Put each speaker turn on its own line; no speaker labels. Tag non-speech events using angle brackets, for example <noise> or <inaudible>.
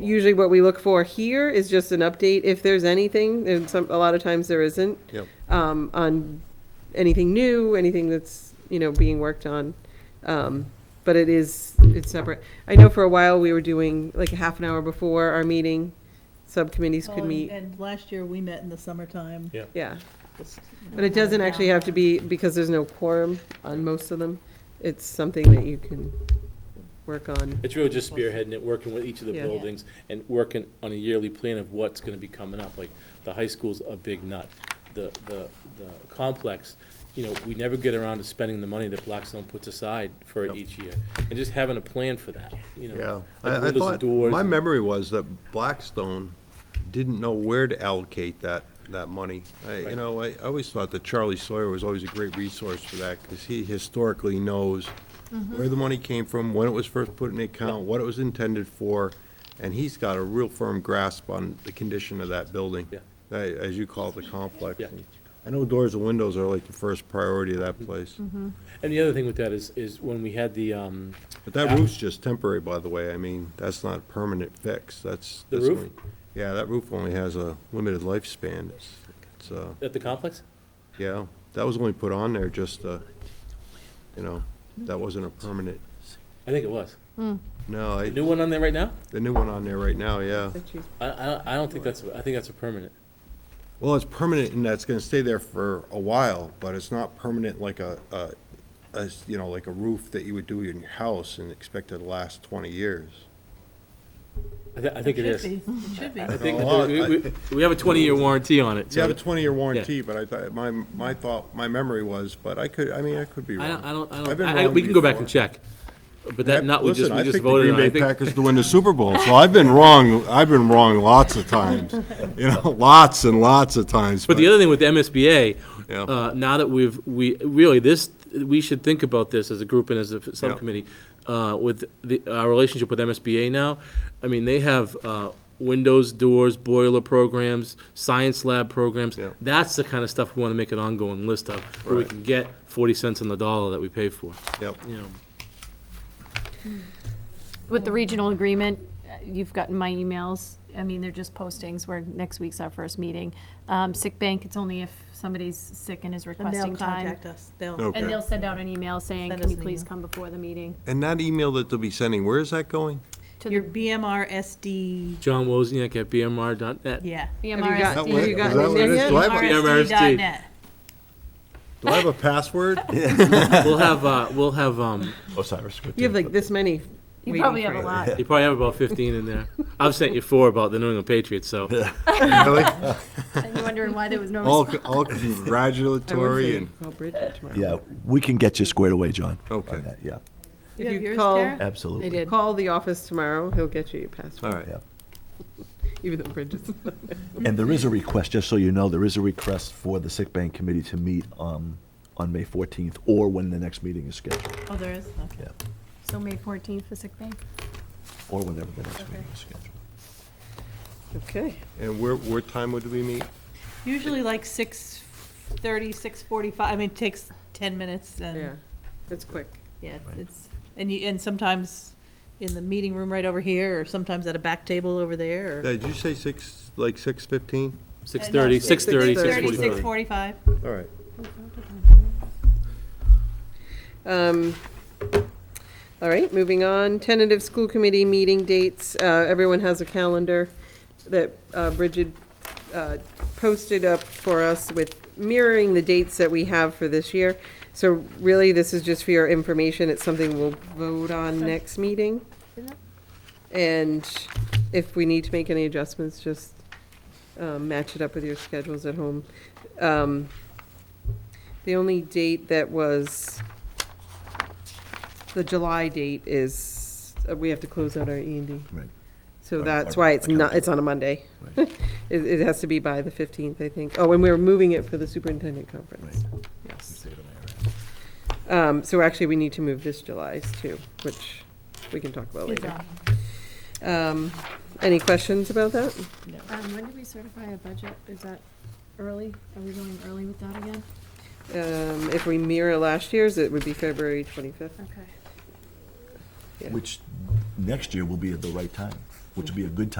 usually what we look for here is just an update, if there's anything, and some, a lot of times there isn't.
Yep.
Um, on anything new, anything that's, you know, being worked on. Um, but it is, it's separate. I know for a while we were doing like a half an hour before our meeting, subcommittees
Oh,
could
and-
meet,
And last year, we met in the summertime.
Yeah.
yeah.
Just-
But it doesn't actually have to be, because there's no quorum on most of them, it's something that you can work on.
It's really just spearheading it, working with each of the
Yeah.
buildings and working on a yearly plan of what's gonna be coming up. Like, the high school's a big nut. The, the, the complex, you know, we never get around to spending the money that Blackstone puts aside for it
Yep.
each year. And just having a plan for that, you
Yeah,
know. like
I I
windows and
thought,
doors
my
and-
memory was that Blackstone didn't know where to allocate that, that money. I, you
Right.
know, I I always thought that Charlie Sawyer was always a great resource for that, because he historically knows where the money came from, when it was first put in the account, what it was intended for, and he's got a real firm grasp on the condition of that building.
Yeah.
uh, As you call it, the complex.
Yeah.
I know doors and windows are like the first priority of that place.
And the other thing with that is, is when we had the, um,
But that roof's just temporary, by the way. I mean, that's not a permanent fix. That's.
The
that's
roof?
only- Yeah, that roof only has a limited lifespan. It's- It's, uh,
at the complex,
yeah, that was only put on there just, uh, you know, that wasn't a permanent.
I think it was.
No, I,
New one on there right now?
the new one on there right now, yeah.
I, I, I don't think that's, I think that's a permanent.
Well, it's permanent and that's gonna stay there for a while, but it's not permanent like a, a, a, you know, like a roof that you would do in your house and expect it to last twenty years.
I, thi- I think it
should
is.
be. It should be.
I think
No,
that
I-
we, we- we have a twenty-year warranty on it,
You have
so
a twenty-year warranty, but I thought, my, my thought, my memory was, but I could, I mean, I could be wrong.
I don't, I don't, I
I've
don't,
been
I- I-
wrong
we can go back
before.
and check. But that nut, we just,
Listen,
we
I
just
picked the
voted on, I
Green Bay
think. <laughs>
Packers to win the Super Bowl, so I've been wrong, I've been wrong lots of times, <laughs> you know, lots and lots of times.
But the other thing with the MSBA,
Yeah.
uh, now that we've, we, really, this, we should think about this as a group and as a subcommittee, uh, with the, our relationship with MSBA now. I mean, they have, uh, windows, doors, boiler programs, science lab programs.
Yeah.
That's the kind of stuff we want to make an ongoing list of, where we
Right.
can get forty cents on the dollar that we pay for,
Yep,
you know.
With the regional agreement, uh, you've gotten my emails. I mean, they're just postings where next week's our first meeting. Um, sick bank, it's only if somebody's sick and is
And they'll
requesting time.
contact us. They'll.
Okay.
And they'll send out an email saying,
Send
can
us
you
an
please
email.
come before the meeting?
and that email that they'll be sending, where is that going?
To
Your
the
BMRSD,
John Wozniak at BMR.net.
yeah.
got-
Is that
you
BMRSD.
got
what it is? Do I have a-
BMRSD.net.
do I have a
<laughs>
password?
We'll have, uh, we'll have, um,
Osiris.
You have like this many
You
waiting
probably
for
have a
you.
lot.
you probably have about fifteen in there. I've sent you four about the New England Patriots, so.
And you're wondering why there
<laughs>
was no
All,
response.
<laughs> all
I would
congratulatory
say
and,
Call Bridget tomorrow.
Yeah, we can get you squared away, John. on
Okay.
that, Yeah,
You have
If you
yours,
call,
Tara?
They
absolutely.
did.
call the office tomorrow, he'll get you your password,
all right.
Yeah.
even though Bridget's.
<laughs>
And there is a request, just so you know, there is a request for the sick bank committee to meet um, on May 14th or when the next meeting is scheduled,
Oh, there is, okay.
yeah,
So May 14th for sick bank?
or whenever the next meeting is scheduled.
Okay.
And where, what time would we meet?
Usually like 6:30, 6:45, I mean, it takes 10 minutes
Yeah,
and,
it's quick.
yeah, it's, and you, and sometimes in the meeting room right over here, or sometimes at a back table over there, or.
Did you say six, like six fifteen?
Six thirty, six thirty, six
6:30,
forty-five.
6:45.
All right.
Um, All right, moving on, tentative school committee meeting dates, Uh, everyone has a calendar that uh, Bridget uh, posted up for us with mirroring the dates that we have for this year. So really, this is just for your information, it's something we'll vote on next meeting. And if we need to make any adjustments, just um, match it up with your schedules at home. Um, The only date that was the July date is, uh, we have to close out our E and D.
Right.
So
Our-
that's
our
why it's not,
accounting.
it's on a Monday.
Right.
It, <laughs> it has to be by the fifteenth, I think. Oh, and we're moving it for the superintendent conference. Yes. Um, so actually, we need to move this July's too, which we can talk about later. Um, any questions about that?
Um, when do we certify a budget? Is that early? Are we going early with that again?
Um, if we mirror last year's, it would be February twenty-fifth.
Okay.
Yeah.
Which next year will be at the right time, which will be a good time